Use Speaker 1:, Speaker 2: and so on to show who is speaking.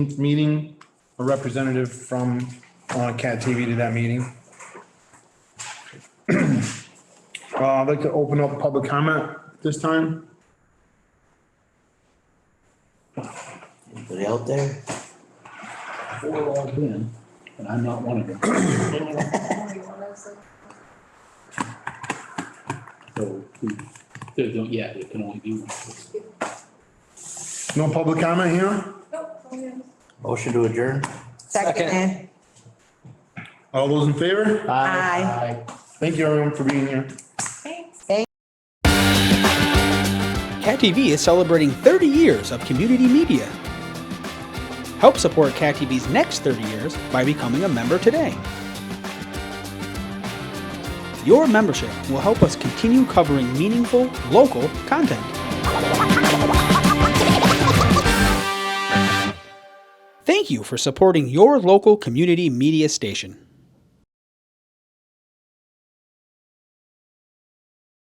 Speaker 1: meeting, a representative from uh, Cat TV to that meeting. Uh, I'd like to open up public comment this time.
Speaker 2: Anybody out there?
Speaker 3: four logged in, and I'm not one of them. So, we- there's no, yeah, there can only be one.
Speaker 1: No public comment here?
Speaker 2: Motion to adjourn?
Speaker 4: Second.
Speaker 1: All those in favor?
Speaker 4: Aye.
Speaker 1: Thank you everyone for being here.
Speaker 5: Cat TV is celebrating 30 years of community media. Help support Cat TV's next 30 years by becoming a member today. Your membership will help us continue covering meaningful, local content. Thank you for supporting your local community media station.